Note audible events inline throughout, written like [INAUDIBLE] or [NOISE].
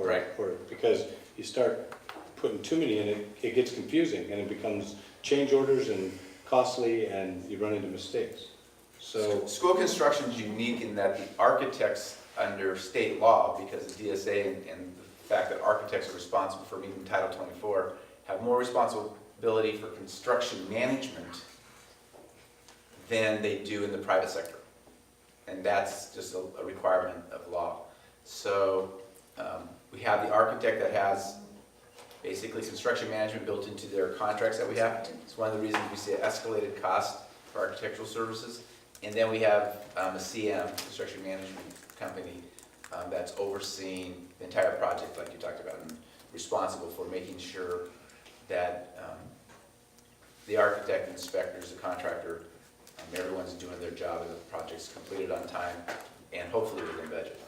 Right. Or, because you start putting too many in, it, it gets confusing, and it becomes change orders and costly, and you run into mistakes. So, School construction is unique in that the architects under state law, because the DSA and, and the fact that architects are responsible for meeting Title twenty-four, have more responsibility for construction management than they do in the private sector. And that's just a, a requirement of law. So, um, we have the architect that has basically construction management built into their contracts that we have. It's one of the reasons we see escalated cost for architectural services. And then we have um, a CM, construction management company, um, that's overseeing the entire project, like you talked about, and responsible for making sure that um, the architect, inspectors, the contractor, um, everyone's doing their job and the project's completed on time and hopefully within budget.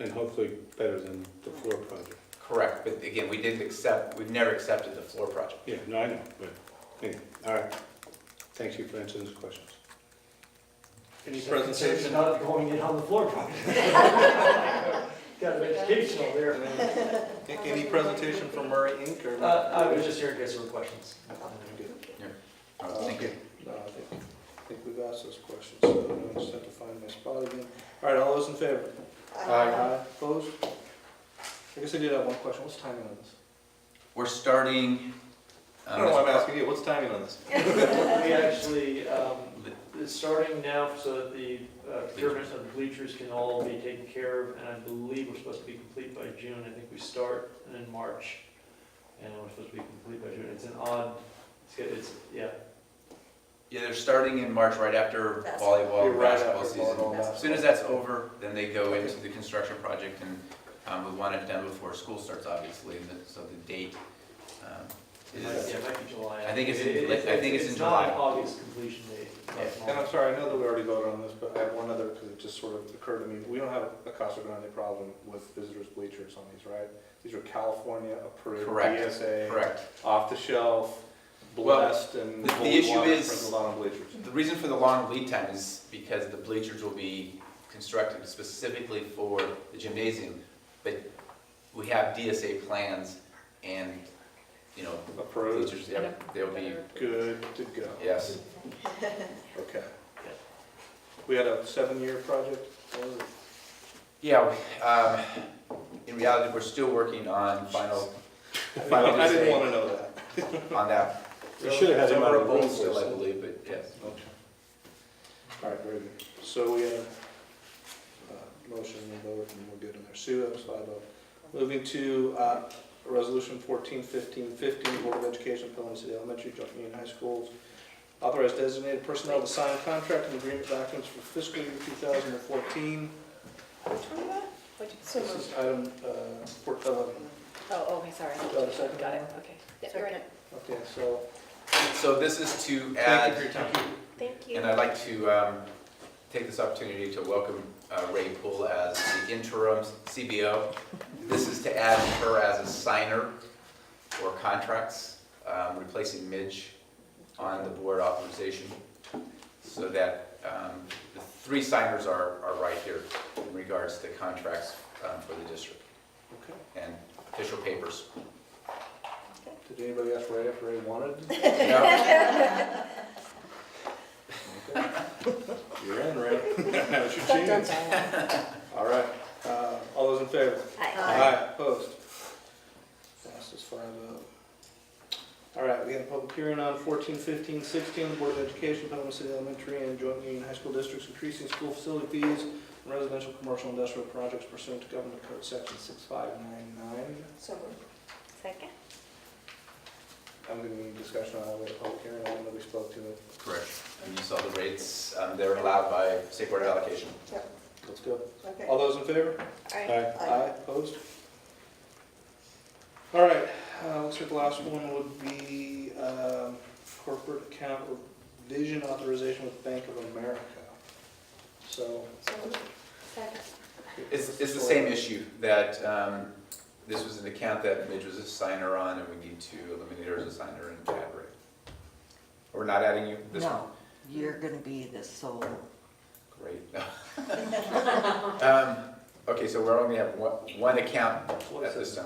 and hopefully better than the floor project. Correct, but again, we didn't accept, we've never accepted the floor project. Yeah, no, I know, but, anyway, all right. Thank you for answering those questions. Any It's presentation? not going in on the floor [LAUGHS] probably. Got an educational there. Any presentation from Murray Inc. or? Uh, I was just here in case there were questions. Uh, Thank you. No, I think, I think we've asked those questions, so I just have to find my spot again. All right, all those in favor? Aye. Opposed? I guess I did have one question, what's timing on this? We're starting. I um, don't know why I'm asking you, what's timing on this? We actually, um, it's starting now so that the uh, procurement of the bleachers can all be taken care of, and I believe we're supposed to be complete by June. I think we start in March, and we're supposed to be complete by June. It's an odd, it's, it's, yeah, Yeah, they're starting in March, right after volleyball, You're and right basketball after season. volleyball, As soon as basketball. that's over, then they go into the construction project and um, we want it done before school starts, obviously, and the- so the date um, it might- is, yeah, it might be July. I think it's in- It- it- I think it's in It's July. not August completion date. Yeah. And I'm sorry, I know that we already voted on this, but I have one other, because it just sort of occurred to me. We don't have a Casa Grande problem with visitors bleachers on these, right? These are California approved, Correct. DSA, correct. off the shelf, blessed and the- the cold issue water is- sprinkled on bleachers. The reason for the long lead time is because the bleachers will be constructed specifically for the gymnasium. But we have DSA plans and, you know, Approved, bleachers, yeah, they'll be, good to go. yes. Okay. We had a seven-year project, what was it? Yeah, we- um, in reality, we're still working on final, final I didn't decision want to know that. on that. We should have had him out Somewhere of the room both for still, I something. believe, but yes. All right, very good. So we have uh motion and vote, and we're good on there. Sue, that was five oh. Moving to uh, Resolution 14, 15, 15, Board of Education, Pelham City Elementary, Junction Union High Schools. Authorize designated personnel to sign contract and agreement documents for fiscal year 2014. So This moved. is item uh, four- 11. Oh, okay, sorry. Do I have a second? Got it, okay. Yeah, you're right. Okay, so So this is to Thank you for add, your time. Thank you. and I'd like to um, take this opportunity to welcome uh, Ray Poole as the interim CBO. This is to add her as a signer for contracts, um, replacing Midge on the board authorization. So that um, the three signers are, are right here in regards to contracts um, for the district Okay. and official papers. Did anybody ask Ray if Ray wanted? No? You're in, Ray. [LAUGHS] That was your Dun, dun, chance. dun. All right, uh, all those in favor? Hi. Aye. Opposed? Passes five oh. All right, we have a public hearing on 14, 15, 16, the Board of Education, Pelham City Elementary and Joint Union High School Districts increasing school facility fees and residential, commercial, industrial projects pursuant to Government Code Section 6599. So moved. Second? I'm going to need discussion on that with a public hearing, I don't know if we spoke to it. Correct. And you saw the rates, um, they're allowed by state board allocation. Let's go. Okay. All those in favor? Aye. Aye. Aye, opposed? All right, uh, looks like the last one would be um, corporate account revision authorization with Bank of America. So. So moved. Second. It's, it's the same issue, that um, this was an account that Midge was a signer on, and we need to eliminate her as a signer and add Ray. We're not adding you this one? No, you're gonna be the sole. Great. [LAUGHS] Um, Okay, so we're only have one, one account One at this time.